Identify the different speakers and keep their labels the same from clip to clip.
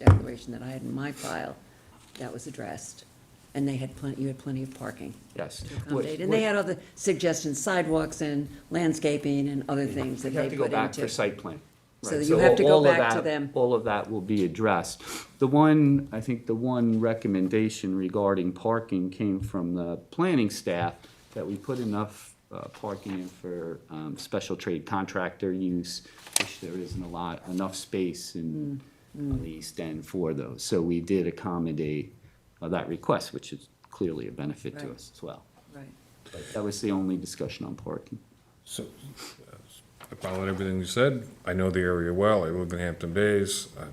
Speaker 1: registration that I had in my file, that was addressed. And they had plenty, you had plenty of parking
Speaker 2: Yes.
Speaker 1: to
Speaker 2: What-
Speaker 1: accommodate. And they
Speaker 2: what-
Speaker 1: had other suggestions, sidewalks and landscaping and other things that
Speaker 2: You
Speaker 1: they
Speaker 2: have
Speaker 1: put
Speaker 2: to
Speaker 1: into.
Speaker 2: go back for site plan.
Speaker 1: So
Speaker 2: Right.
Speaker 1: you have to go
Speaker 2: all of
Speaker 1: back to
Speaker 2: that-
Speaker 1: them.
Speaker 2: All of that will be addressed. The one, I think the one recommendation regarding parking came from the planning staff that we put enough uh, parking in for um, special trade contractor use, which there isn't a lot, enough space in
Speaker 1: Mm,
Speaker 2: on the East End for those. So we did accommodate uh, that request, which is clearly a benefit to
Speaker 1: Right.
Speaker 2: us as well.
Speaker 1: Right.
Speaker 2: But That was the only discussion on parking.
Speaker 3: So, uh, following everything you said, I know the area well, I lived in Hampton Bays, Uh,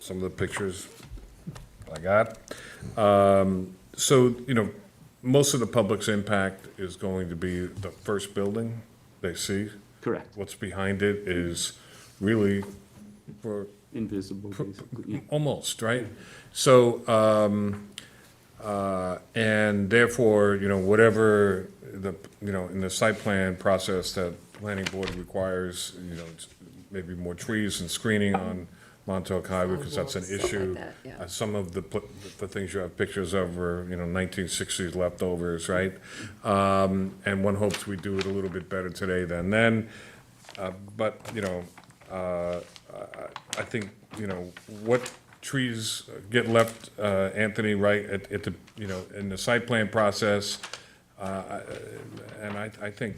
Speaker 3: some of the pictures I got. Um, So, you know, most of the public's impact is going to be the first building they see.
Speaker 2: Correct.
Speaker 3: What's behind it is really for
Speaker 2: Invisible, basically, yeah.
Speaker 3: almost, right? So, um, uh, and therefore, you know, whatever the, you know, in the site plan process that planning board requires, you know, it's maybe more trees and screening on Montauk Highway, because that's an
Speaker 1: Sidewalks, stuff like
Speaker 3: issue.
Speaker 1: that, yeah.
Speaker 3: Uh, Some of the, pl- the things you have pictures of were, you know, nineteen sixties leftovers, right? Um, and one hopes we do it a little bit better today than then. Uh, But, you know, uh, I- I think, you know, what trees get left, uh, Anthony, right, at, at the, you know, in the site plan process, uh, I- and I, I think,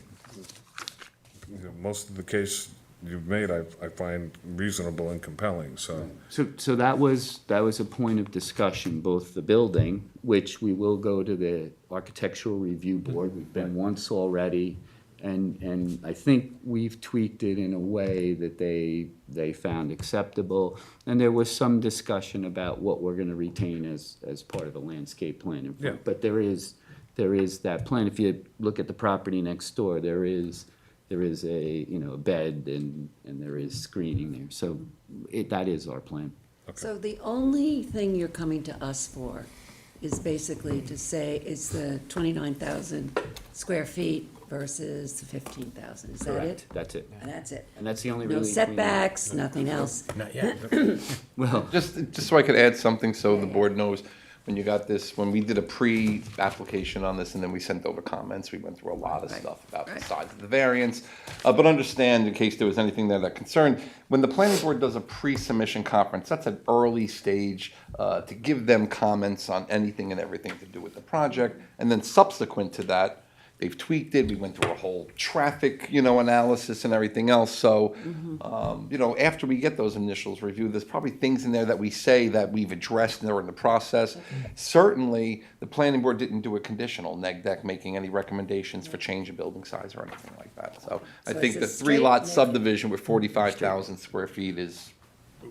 Speaker 3: you know, most of the case you've made, I, I find reasonable and compelling, so.
Speaker 2: So, so that was, that was a point of discussion, both the building, which we will go to the architectural review board, we've been once already. And, and I think we've tweaked it in a way that they, they found acceptable. And there was some discussion about what we're gonna retain as, as part of the landscape plan. in front.
Speaker 3: Yeah.
Speaker 2: But there is, there is that plan, if you look at the property next door, there is, there is a, you know, a bed and, and there is screening there, so it, that is our plan.
Speaker 1: So the only thing you're coming to us for is basically to say it's the twenty-nine thousand square feet versus the fifteen thousand, is that it?
Speaker 2: That's it,
Speaker 1: And that's it.
Speaker 2: and that's the only
Speaker 1: No
Speaker 2: really.
Speaker 1: setbacks, nothing else.
Speaker 4: Not yet.
Speaker 2: Well,
Speaker 5: Just, just so I could add something so the board knows, when you got this, when we did a pre-application on this and then we sent over comments, we went through a lot of
Speaker 1: Right.
Speaker 5: stuff about the
Speaker 1: Right.
Speaker 5: size of the variance. Uh, but understand, in case there was anything there that concerned, when the planning board does a pre-submission conference, that's an early stage uh, to give them comments on anything and everything to do with the project. And then subsequent to that, they've tweaked it, we went through a whole traffic, you know, analysis and everything else, so,
Speaker 1: Mm-hmm.
Speaker 5: um, you know, after we get those initials reviewed, there's probably things in there that we say that we've addressed and are in the process.
Speaker 1: Mm-hmm.
Speaker 5: Certainly, the planning board didn't do a conditional neg deck, making any recommendations for change of building size or anything like that, so I
Speaker 1: So
Speaker 5: think
Speaker 1: it's a
Speaker 5: the three lot
Speaker 1: straight neg-
Speaker 5: subdivision with forty-five thousand square feet is,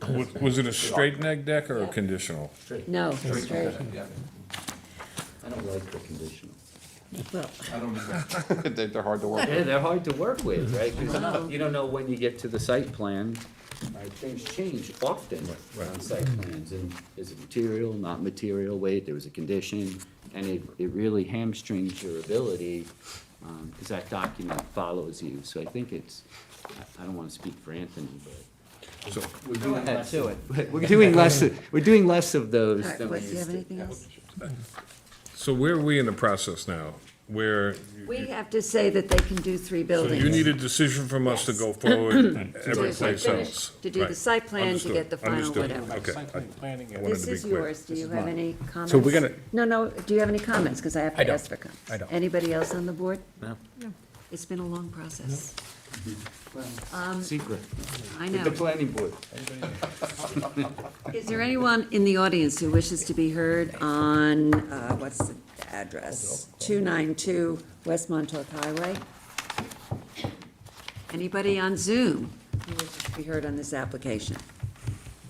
Speaker 3: Was- Was it a straight neg deck or a conditional?
Speaker 1: No, straight,
Speaker 2: I don't like the conditional.
Speaker 1: well,
Speaker 5: they're they're hard to work with.
Speaker 2: Yeah, they're hard to work with, right, 'Cause you don't know when you get to the site plan, right, things change often on site plans, and is it material, not material, wait, there was a condition, and it, it really hamstrings your ability, um, cause that document follows you, so I think it's, I- I don't wanna speak for Anthony, but.
Speaker 3: So-
Speaker 2: We're doing less, but we're doing less, of- we're doing less of
Speaker 1: all
Speaker 2: those
Speaker 1: right,
Speaker 2: than we
Speaker 1: what, do you
Speaker 2: used
Speaker 1: have
Speaker 2: to.
Speaker 1: anything else?
Speaker 3: So where are we in the process now? Where,
Speaker 1: We have to say that they can do three
Speaker 3: so
Speaker 1: buildings.
Speaker 3: you need a decision from us to go forward every
Speaker 1: To do the
Speaker 3: place
Speaker 1: site-
Speaker 3: else?
Speaker 1: To do the
Speaker 3: Right.
Speaker 1: site plan, to
Speaker 3: Understood.
Speaker 1: get the final
Speaker 3: Understood.
Speaker 1: whatever.
Speaker 3: Okay. I wanted
Speaker 1: This
Speaker 3: to be
Speaker 1: is
Speaker 3: clear.
Speaker 1: yours, do you have any comments?
Speaker 4: So we're gonna-
Speaker 1: No, no, do you have any comments, because I have
Speaker 4: I
Speaker 1: to
Speaker 4: don't.
Speaker 1: ask for comments.
Speaker 4: I don't.
Speaker 1: Anybody else on the board?
Speaker 4: No.
Speaker 1: It's been a long process, Um,
Speaker 2: Secret,
Speaker 1: I
Speaker 2: with the
Speaker 1: know.
Speaker 2: planning board.
Speaker 1: Is there anyone in the audience who wishes to be heard on, uh, what's the address? 292 West Montauk Highway? Anybody on Zoom who wishes to be heard on this application?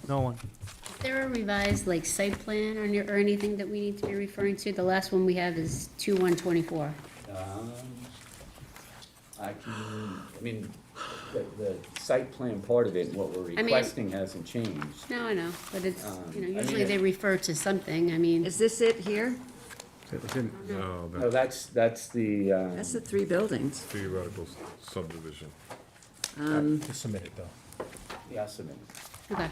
Speaker 6: Is there a revised, like, site plan or, or anything that we need to be referring to? The last one we have is two one twenty-four.
Speaker 2: Um, I can, I mean, the, the site plan part of it, what we're
Speaker 6: mean-
Speaker 2: requesting hasn't changed.
Speaker 6: No, I know, but it's, you know,
Speaker 2: Um, I
Speaker 6: usually
Speaker 2: mean,
Speaker 6: they
Speaker 2: it-
Speaker 6: refer to something, I mean,
Speaker 1: Is this it here?
Speaker 2: No,
Speaker 3: No, that's
Speaker 2: that's, that's the, uh,
Speaker 1: That's the three buildings.
Speaker 3: theoretical subdivision.
Speaker 4: Just submit it, though.
Speaker 2: the estimate.
Speaker 6: okay.